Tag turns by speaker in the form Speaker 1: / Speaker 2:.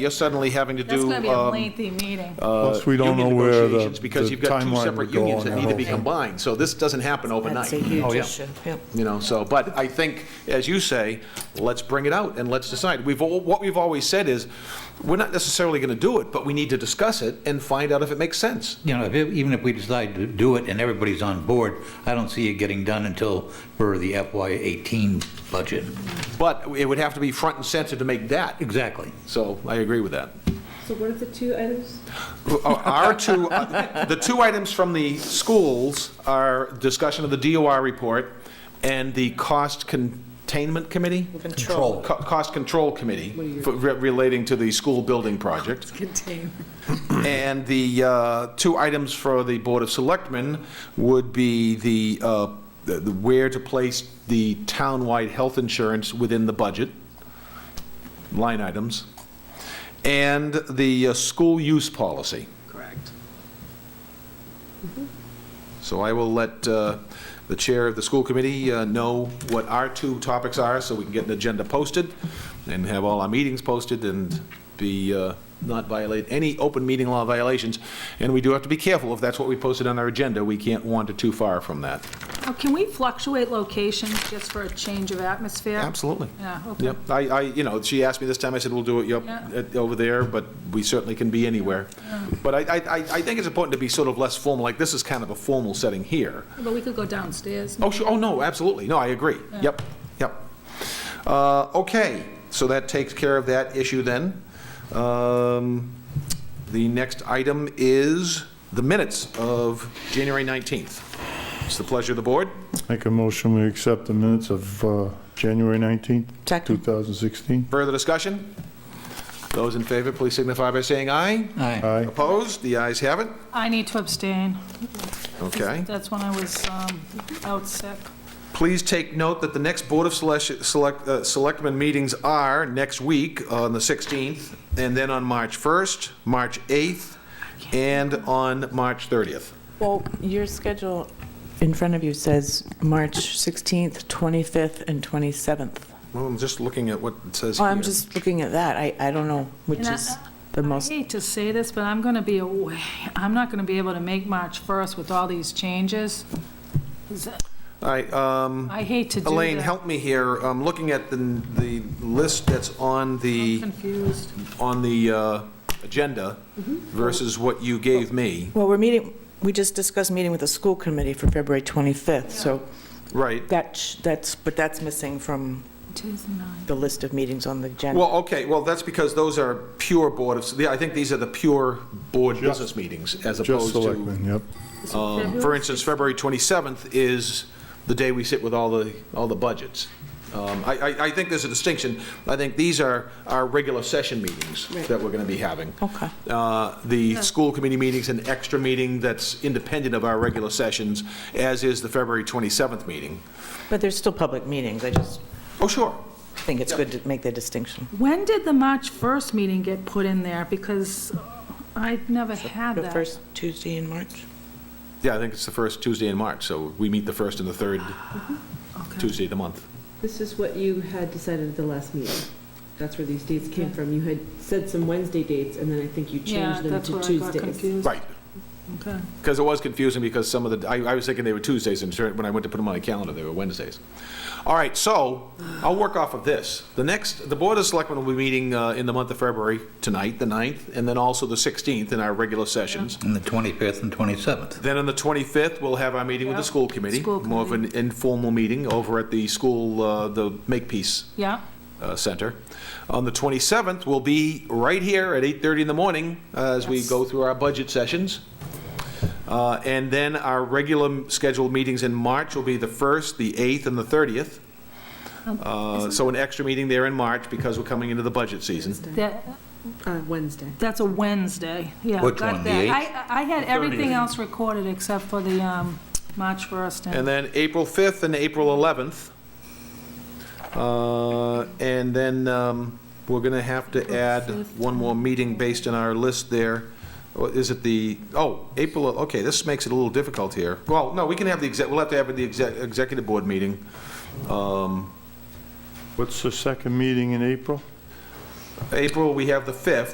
Speaker 1: You're suddenly having to do.
Speaker 2: That's gonna be a
Speaker 1: um,
Speaker 2: lengthy meeting.
Speaker 1: uh,
Speaker 3: Plus, we don't know
Speaker 1: union
Speaker 3: where the
Speaker 1: negotiations Because
Speaker 3: the
Speaker 1: you've got two
Speaker 3: timeline
Speaker 1: separate
Speaker 3: would go
Speaker 1: unions
Speaker 3: on
Speaker 1: that need to be
Speaker 3: whole thing.
Speaker 1: combined, so this doesn't happen overnight.
Speaker 4: That's a huge
Speaker 1: Oh, yeah.
Speaker 4: issue. Yep.
Speaker 1: You know, so, but I think, as you say, let's bring it out and let's decide. We've, all what we've always said is, we're not necessarily going to do it, but we need to discuss it and find out if it makes sense.
Speaker 5: You know, if it- even if we decide to do it and everybody's on board, I don't see it getting done until for the FY '18 budget.
Speaker 1: But it would have to be front and center to make that,
Speaker 5: Exactly.
Speaker 1: so I agree with that. oh,
Speaker 6: So what are the two items?
Speaker 1: Our two, uh, the two items from the schools are discussion of the DOR report and the cost containment committee?
Speaker 4: Control.
Speaker 1: Co- Cost Control Committee for- re- relating to the school building project. And the uh, two items for the Board of Selectmen would be the, uh, the- the where to place the townwide health insurance within the budget, line items, and the uh, school use policy. Correct. So I will let uh, the chair of the school committee uh, know what our two topics are, so we can get an agenda posted and have all our meetings posted and be, uh, not violate any open meeting law violations. And we do have to be careful, if that's what we posted on our agenda, we can't wander too far from that.
Speaker 2: Now, Oh, Can we fluctuate locations just for a change of atmosphere?
Speaker 1: Absolutely.
Speaker 2: Yeah, okay.
Speaker 1: Yep, I, I, you know, she asked me this time, I said, we'll do it, yep,
Speaker 2: Yeah.
Speaker 1: at- over there, but we certainly can be anywhere. But I, I, I- I think it's important to be sort of less formal, like this is kind of a formal setting here.
Speaker 2: But we could go downstairs.
Speaker 1: Oh, sure, oh, no, absolutely, no, I agree, yep, yep. Uh, Okay, so that takes care of that issue then. Um, The next item is the minutes of January 19th. It's the pleasure of the board.
Speaker 3: Make a motion, we accept the minutes of uh, January 19th,
Speaker 4: Second.
Speaker 3: 2016.
Speaker 1: Further discussion? Those in favor, please signify by saying aye.
Speaker 5: Aye.
Speaker 3: Aye.
Speaker 1: Opposed? The ayes have it.
Speaker 2: I need to abstain.
Speaker 1: Okay.
Speaker 2: That's when I was um, out sick.
Speaker 1: Please take note that the next Board of Selec- Select- uh, Selectmen meetings are next week on the 16th, and then on March 1st, March 8th, and on March 30th.
Speaker 4: Well, your schedule in front of you says March 16th, 25th, and 27th.
Speaker 1: Well, I'm just looking at what it says
Speaker 4: Oh,
Speaker 1: here.
Speaker 4: I'm just looking at that. I, I don't know which
Speaker 2: And I-
Speaker 4: is the most,
Speaker 2: I hate to say this, but I'm gonna be away. I'm not gonna be able to make March 1st with all these changes. Is that-
Speaker 1: All right, um,
Speaker 2: I hate to do that.
Speaker 1: Elaine, help me here. I'm looking at the, the list that's on
Speaker 2: I'm
Speaker 1: the,
Speaker 2: confused.
Speaker 1: on the uh, agenda versus what you gave me.
Speaker 4: well, we're meeting, we just discussed meeting with the school committee for February 25th, so
Speaker 1: Right.
Speaker 4: that, sh- that's, but that's missing from
Speaker 2: It is nine.
Speaker 4: the list of meetings on the agenda.
Speaker 1: Well, okay, well, that's because those are pure Board of, I think these are the pure board business meetings as
Speaker 3: Just
Speaker 1: opposed to,
Speaker 3: selectmen, yep.
Speaker 1: um, for instance, February 27th is the day we sit with all the, all the budgets. Um, I, I, I think there's a distinction. I think these are our regular session meetings that we're going to be having.
Speaker 4: Okay.
Speaker 1: Uh, The school committee meeting's an extra meeting that's independent of our regular sessions, as is the February 27th meeting.
Speaker 4: But there's still public meetings. I just
Speaker 1: Oh, sure.
Speaker 4: think it's good to make the distinction.
Speaker 2: When did the March 1st meeting get put in there? Because I'd never had
Speaker 4: The
Speaker 2: that.
Speaker 4: first Tuesday in March?
Speaker 1: Yeah, I think it's the first Tuesday in March, so we meet the first and the third
Speaker 2: Okay.
Speaker 1: Tuesday of the month.
Speaker 6: This is what you had decided at the last meeting. That's where these dates came from. You had said some Wednesday dates, and then I think you
Speaker 2: Yeah,
Speaker 6: changed them
Speaker 2: that's
Speaker 6: to
Speaker 2: where I got
Speaker 6: Tuesdays.
Speaker 2: confused.
Speaker 1: Right.
Speaker 2: Okay.
Speaker 1: Because it was confusing because some of the, I, I was thinking they were Tuesdays, and certain- when I went to put them on my calendar, they were Wednesdays. All right, so I'll work off of this. The next, the Board of Selectmen will be meeting uh, in the month of February, tonight, the 9th, and then also the 16th in our regular sessions.
Speaker 5: And the 25th and 27th.
Speaker 1: Then on the 25th, we'll have our meeting with the
Speaker 2: Yeah.
Speaker 1: school committee.
Speaker 2: School
Speaker 1: More of an informal meeting over at the school, uh, the Makepeace
Speaker 2: Yeah.
Speaker 1: uh, Center. On the 27th, we'll be right here at 8:30 in the morning uh, as we go through our budget sessions. Uh, And then our regular scheduled meetings in March will be the 1st, the 8th, and the 30th. Uh, So an extra meeting there in March because we're coming into the budget season.
Speaker 2: That,
Speaker 6: Uh, Wednesday.
Speaker 2: that's a Wednesday. Yeah.
Speaker 5: Which
Speaker 2: got
Speaker 5: one, the
Speaker 2: that.
Speaker 5: eighth?
Speaker 2: I, I had everything else recorded except for the, um, March 1st.
Speaker 1: And then April 5th and April 11th. Uh, And then um, we're going to have to add one more meeting based on our list there. Or Is it the, oh, April, okay, this makes it a little difficult here. Well, no, we can have the, exec. we'll have to have the exec- executive board meeting.
Speaker 3: What's the second meeting in April?
Speaker 1: April, we have the 5th.